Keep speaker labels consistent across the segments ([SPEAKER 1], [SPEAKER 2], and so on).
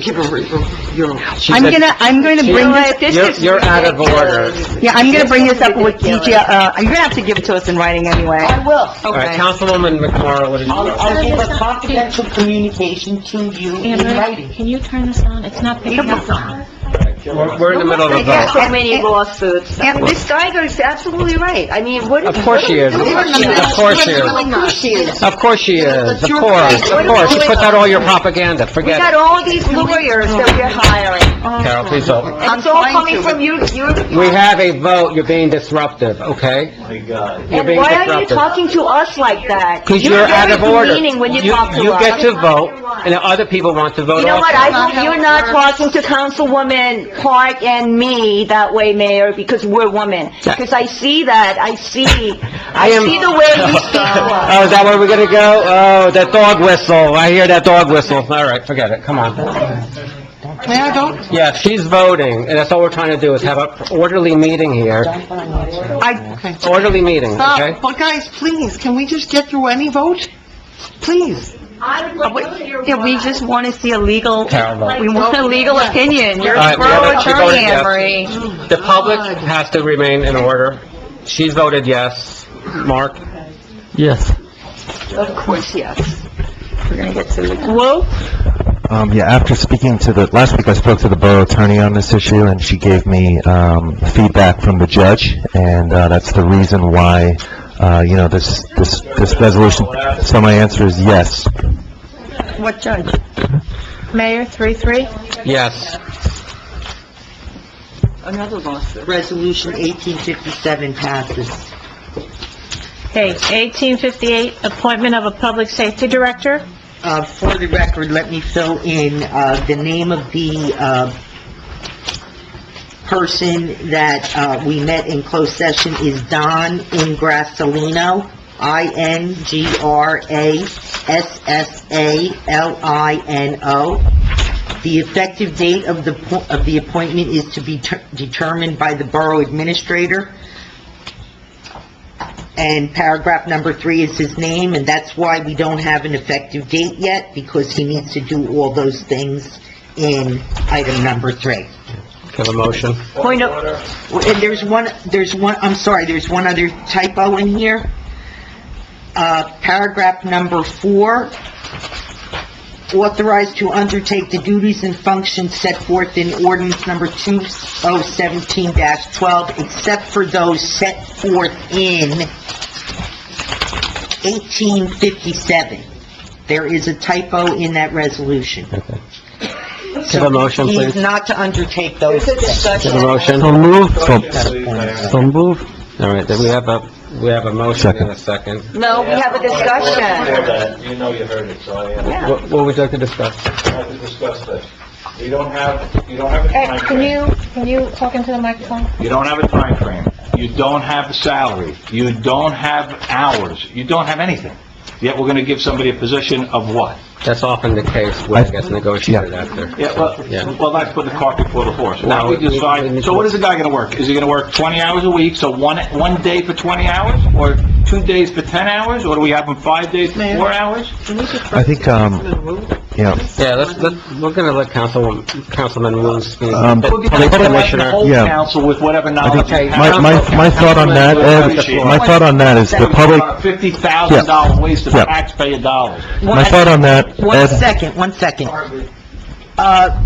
[SPEAKER 1] Give her, your, she
[SPEAKER 2] I'm
[SPEAKER 1] said-
[SPEAKER 2] gonna, I'm gonna
[SPEAKER 1] You
[SPEAKER 2] bring
[SPEAKER 1] know
[SPEAKER 2] this,
[SPEAKER 1] what? This You're- is you're out of ridiculous.
[SPEAKER 2] yeah, I'm gonna bring this up with
[SPEAKER 1] Ridiculous.
[SPEAKER 2] DJ, uh, you're gonna have to give it to us in writing anyway.
[SPEAKER 3] I will.
[SPEAKER 1] All right,
[SPEAKER 2] Okay.
[SPEAKER 1] Councilwoman McMorro, what did you
[SPEAKER 3] I'll,
[SPEAKER 1] vote?
[SPEAKER 3] I'll give a confidential communication to you in
[SPEAKER 4] Anne Marie,
[SPEAKER 3] writing.
[SPEAKER 4] can you turn this on? It's not picking up.
[SPEAKER 1] We're we're in the middle of a
[SPEAKER 5] There's
[SPEAKER 1] vote.
[SPEAKER 5] so many lawsuits.
[SPEAKER 2] And
[SPEAKER 5] This Geiger is absolutely right. I mean, what...
[SPEAKER 1] Of course she is. Of course she is.
[SPEAKER 5] Of course she is.
[SPEAKER 1] Of course she is, of course, of course. You put out all your propaganda,
[SPEAKER 5] We
[SPEAKER 1] forget
[SPEAKER 5] got all these lawyers that we're hiring.
[SPEAKER 1] it. Carol, please vote.
[SPEAKER 5] And it's all coming from you, you...
[SPEAKER 1] We have a vote, you're being disruptive, okay? My God. You're
[SPEAKER 5] And
[SPEAKER 1] being
[SPEAKER 5] why are you
[SPEAKER 1] disruptive.
[SPEAKER 5] talking to us like that?
[SPEAKER 1] Because you're out of order.
[SPEAKER 5] You're very demeaning when you
[SPEAKER 1] You-
[SPEAKER 5] talk to
[SPEAKER 1] You
[SPEAKER 5] us.
[SPEAKER 1] get to vote, and the other people want to vote
[SPEAKER 5] You know what, I
[SPEAKER 1] also.
[SPEAKER 5] hope you're not talking to Councilwoman Park and me that way, Mayor, because we're women. Because I see that, I see, I
[SPEAKER 1] am-
[SPEAKER 5] see the way you speak to
[SPEAKER 4] Uh,
[SPEAKER 5] us.
[SPEAKER 1] Oh, is that where we're gonna go? Oh, that dog whistle, I hear that dog whistle. All right, forget it, come on.
[SPEAKER 2] May I vote?
[SPEAKER 1] Yeah, she's voting, and that's all we're trying to do, is have an orderly meeting here,
[SPEAKER 2] I,
[SPEAKER 1] orderly meeting, okay?
[SPEAKER 2] stop, but guys, please, can we just get through any vote? Please.
[SPEAKER 4] Yeah, we just want to see a legal,
[SPEAKER 1] Carol votes.
[SPEAKER 4] we want a legal opinion. You're
[SPEAKER 1] All right,
[SPEAKER 4] a
[SPEAKER 1] we have
[SPEAKER 4] borough
[SPEAKER 1] a- she voted
[SPEAKER 4] attorney, Anne
[SPEAKER 1] yes.
[SPEAKER 4] Marie.
[SPEAKER 1] The public has to remain in order. She's voted yes. Mark? Yes.
[SPEAKER 5] Of course, yes.
[SPEAKER 4] Whoa,
[SPEAKER 6] Um, yeah, after speaking to the, last week I spoke to the borough attorney on this issue, and she gave me, um, feedback from the judge, and, uh, that's the reason why, uh, you know, this, this, this resolution, so my answer is yes.
[SPEAKER 4] what judge? Mayor, three, three?
[SPEAKER 1] Yes.
[SPEAKER 5] Another lawsuit.
[SPEAKER 3] Resolution 1857 passes.
[SPEAKER 4] Okay, 1858, appointment of a public safety director.
[SPEAKER 3] Uh, for the record, let me fill in, uh, the name of the, uh, person that, uh, we met in closed session is Don Ingrassalino, I-N-G-R-A-S-S-A-L-I-N-O. The effective date of the, po- of the appointment is to be ter- determined by the borough administrator. And paragraph number three is his name, and that's why we don't have an effective date yet, because he needs to do all those things in item number three.
[SPEAKER 1] Have a motion.
[SPEAKER 5] Point of,
[SPEAKER 3] And there's one, there's one, I'm sorry, there's one other typo in here. Uh, paragraph number four, authorized to undertake the duties and functions set forth in ordinance number 2017-12, except for those set forth in 1857. There is a typo in that resolution.
[SPEAKER 1] Have a motion,
[SPEAKER 3] He's
[SPEAKER 1] please.
[SPEAKER 3] not to undertake those.
[SPEAKER 1] Have a motion. So move. So move. All right, then we have a, we have a motion in a second.
[SPEAKER 5] no, we have a discussion.
[SPEAKER 7] You know you heard it, so I am.
[SPEAKER 5] Yeah.
[SPEAKER 1] What what would you like to discuss?
[SPEAKER 7] I have to discuss this. We don't have, you don't have a timeframe.
[SPEAKER 4] you, can you talk into the microphone?
[SPEAKER 7] You don't have a time frame. You don't have a salary. You don't have hours. You don't have anything. Yet we're gonna give somebody a position of what?
[SPEAKER 1] That's often the case when it gets negotiated after.
[SPEAKER 7] Yeah,
[SPEAKER 1] Yeah.
[SPEAKER 7] well, well, that's put the cart before the horse.
[SPEAKER 1] No,
[SPEAKER 7] Now we
[SPEAKER 1] we- we-
[SPEAKER 7] decide, so what is the guy gonna work? Is he gonna work 20 hours a week, so one, one day for 20 hours? Or two days for 10 hours? Or do we have him five days for four hours?
[SPEAKER 6] I think, um, you know,
[SPEAKER 1] Yeah, let's, let's, we're gonna let Councilwoman, Councilman Wu speak.
[SPEAKER 6] Um,
[SPEAKER 7] We're gonna provide the
[SPEAKER 1] Commissioner.
[SPEAKER 7] whole
[SPEAKER 6] Yeah.
[SPEAKER 7] council with whatever knowledge he
[SPEAKER 1] Okay,
[SPEAKER 7] has.
[SPEAKER 6] my, my, my thought on that, Ed, my thought on that is the public,
[SPEAKER 7] Fifty thousand dollar waste of
[SPEAKER 6] Yeah.
[SPEAKER 7] taxpayer dollars.
[SPEAKER 6] my thought on that,
[SPEAKER 3] One
[SPEAKER 6] Ed,
[SPEAKER 3] second, one second. Uh,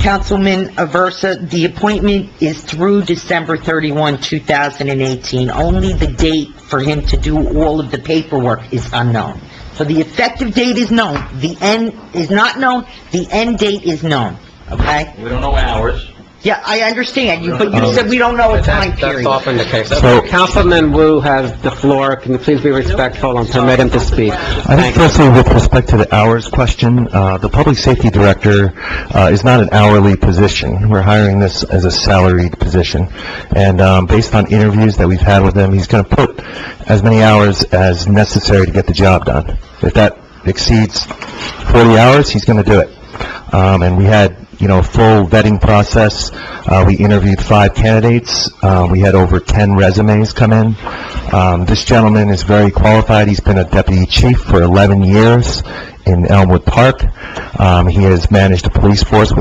[SPEAKER 3] Councilman Aversa, the appointment is through December 31, 2018. Only the date for him to do all of the paperwork is unknown. So the effective date is known, the end is not known, the end date is known, okay?
[SPEAKER 7] We don't know hours.
[SPEAKER 3] Yeah, I understand you, but you said we don't know a time
[SPEAKER 1] That's that's
[SPEAKER 3] period.
[SPEAKER 1] often the case.
[SPEAKER 6] So-
[SPEAKER 1] Councilman Wu has the floor. Can you please be respectful and permit him to speak?
[SPEAKER 6] I think
[SPEAKER 1] Thank you.
[SPEAKER 6] firstly, with respect to the hours question, uh, the public safety director uh, is not an hourly position. We're hiring this as a salaried position. And um, based on interviews that we've had with him, he's going to put as many hours as necessary to get the job done. If that exceeds 40 hours, he's going to do it. Um, And we had, you know, a full vetting process. Uh, We interviewed five candidates. Uh, We had over 10 resumes come in. Um, This gentleman is very qualified. He's been a deputy chief for 11 years in Elmwood Park. Um, He has managed a police force with